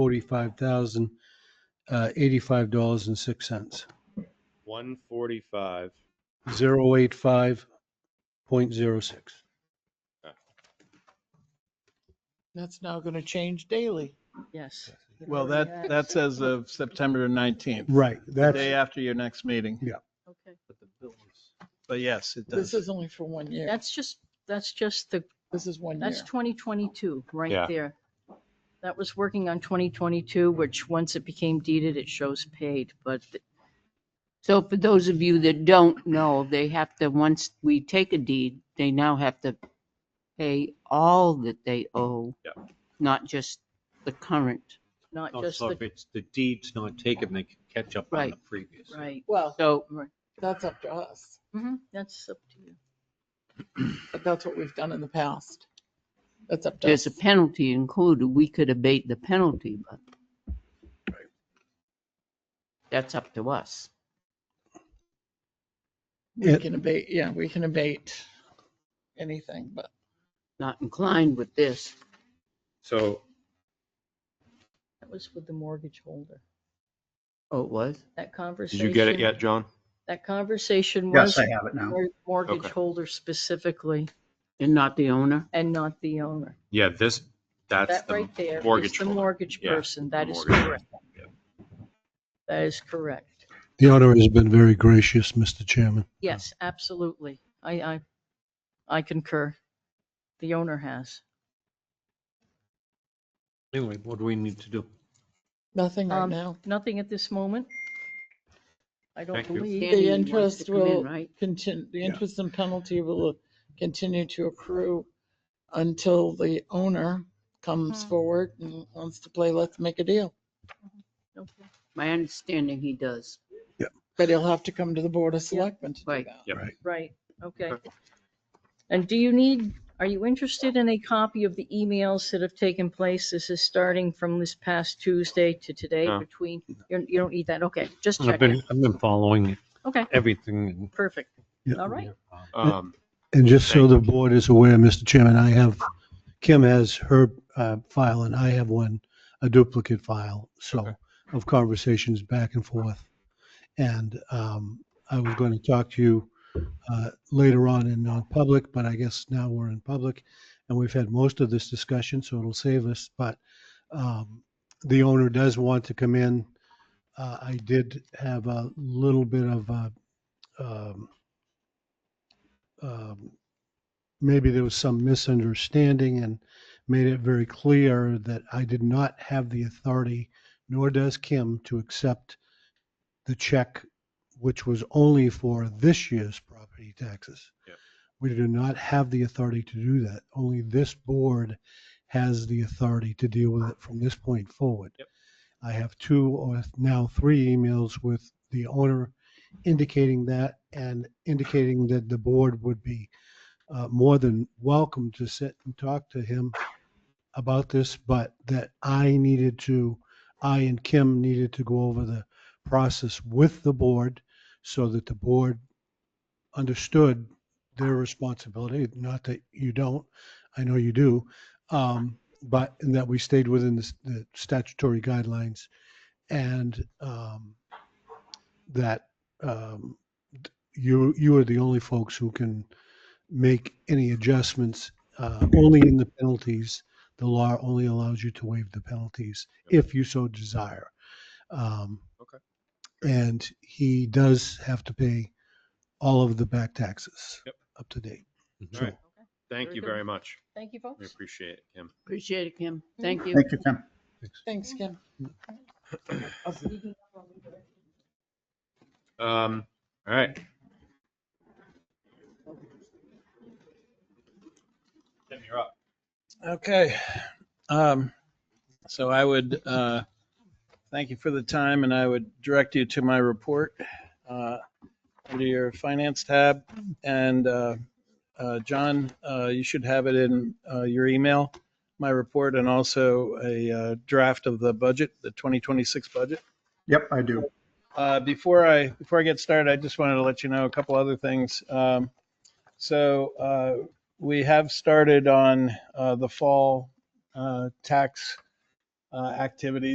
forty-five thousand, uh, eighty-five dollars and six cents. One forty-five. Zero eight five point zero six. That's now going to change daily. Yes. it Well, already that, has. that's as of September 19th, Right, the day that's, after your next meeting. Okay. But yes, it This does. is only for one year. That's just, that's just the, This is one year. that's 2022 Yeah. right there. That was working on 2022, which once it became deeded, it shows paid, but th- So for those of you that don't know, they have to, once we take a deed, they now have to pay all that they owe. Not just the current. not just Also, the, if it's the deed's not taken, they can catch up on the Right. previous. right. Well, So that's up to us, Mhm, That's up to you. but that's what we've done in the past. That's up to there's us. a penalty included. We could abate the penalty, but that's up to us. We Yeah. can abate, yeah, we can abate anything, but Not inclined with this. So That was with the mortgage holder. Oh, it was? That conversation. did you get it yet, John? That conversation was Yes, I have it now. mor- mortgage Okay. holder specifically And not the owner? and not the owner. Yeah, this, that's That the right there is mortgage. the holder. mortgage Yeah, person. That the is mortgage correct. That is correct. the honor has been very gracious, Mr. Chairman. Yes, Um, absolutely. I, I, I concur. The owner has. Anyway, what do we need to do? nothing right Um, now. Nothing at this moment. I don't Thank you. believe. The Danny wants to interest come in, will right? continue, the Yeah. interest and penalty will continue to accrue until the owner comes Mhm. forward and wants to play, let's make a deal. Okay. My understanding, he does. But he'll have to come to the Board of Selectmen to do Right. that. Right, okay. And do you need, are you interested in a copy of the emails that have taken place? This is starting from this past Tuesday to today No. between, you you don't need that, okay, just I've checking. been, I've been following Okay, everything and perfect, Yeah. all right. Um, And just so Thank the you. board is aware, Mr. Chairman, I have, Kim has her uh, file and I have one, a duplicate file, so, of conversations back and forth. And um, I was going to talk to you uh, later on in non-public, but I guess now we're in public and we've had most of this discussion, so it'll save us. But um, the owner does want to come in. Uh, I did have a little bit of a, um, um, maybe there was some misunderstanding and made it very clear that I did not have the authority, nor does Kim, to accept the check, which was only for this year's property taxes. Yep. We do not have the authority to do that. Only this board has the authority to deal with it from this point forward. Yep. I have two or now three emails with the owner indicating that and indicating that the board would be uh, more than welcome to sit and talk to him about this, but that I needed to, I and Kim needed to go over the process with the board so that the board understood their responsibility, not that you don't, I know you do, um, but, and that we stayed within the s- the statutory guidelines and um, that um, d- you you are the only folks who can make any adjustments uh, only in the penalties. The law only allows you to waive the penalties if you so desire. Um, Okay. And he does have to pay all of the back taxes Yep. up to date. Mhm. So- All right. thank Very you good. very much. Thank you, We folks. appreciate it, Kim. Appreciate it, Kim. Thank you. Thank you, Kim. Thanks, Kim. Um, all right. Tim, you're up. Okay. Um, So I would, uh, thank you for the time and I would direct you to my report uh, under your finance tab. And uh, uh, John, uh, you should have it in uh, your email, my report, and also a uh, draft of the budget, the 2026 budget. Yep, I do. Uh, before I before I get started, I just wanted to let you know a couple other things. Um, so uh, we have started on uh, the fall uh, tax uh, activities.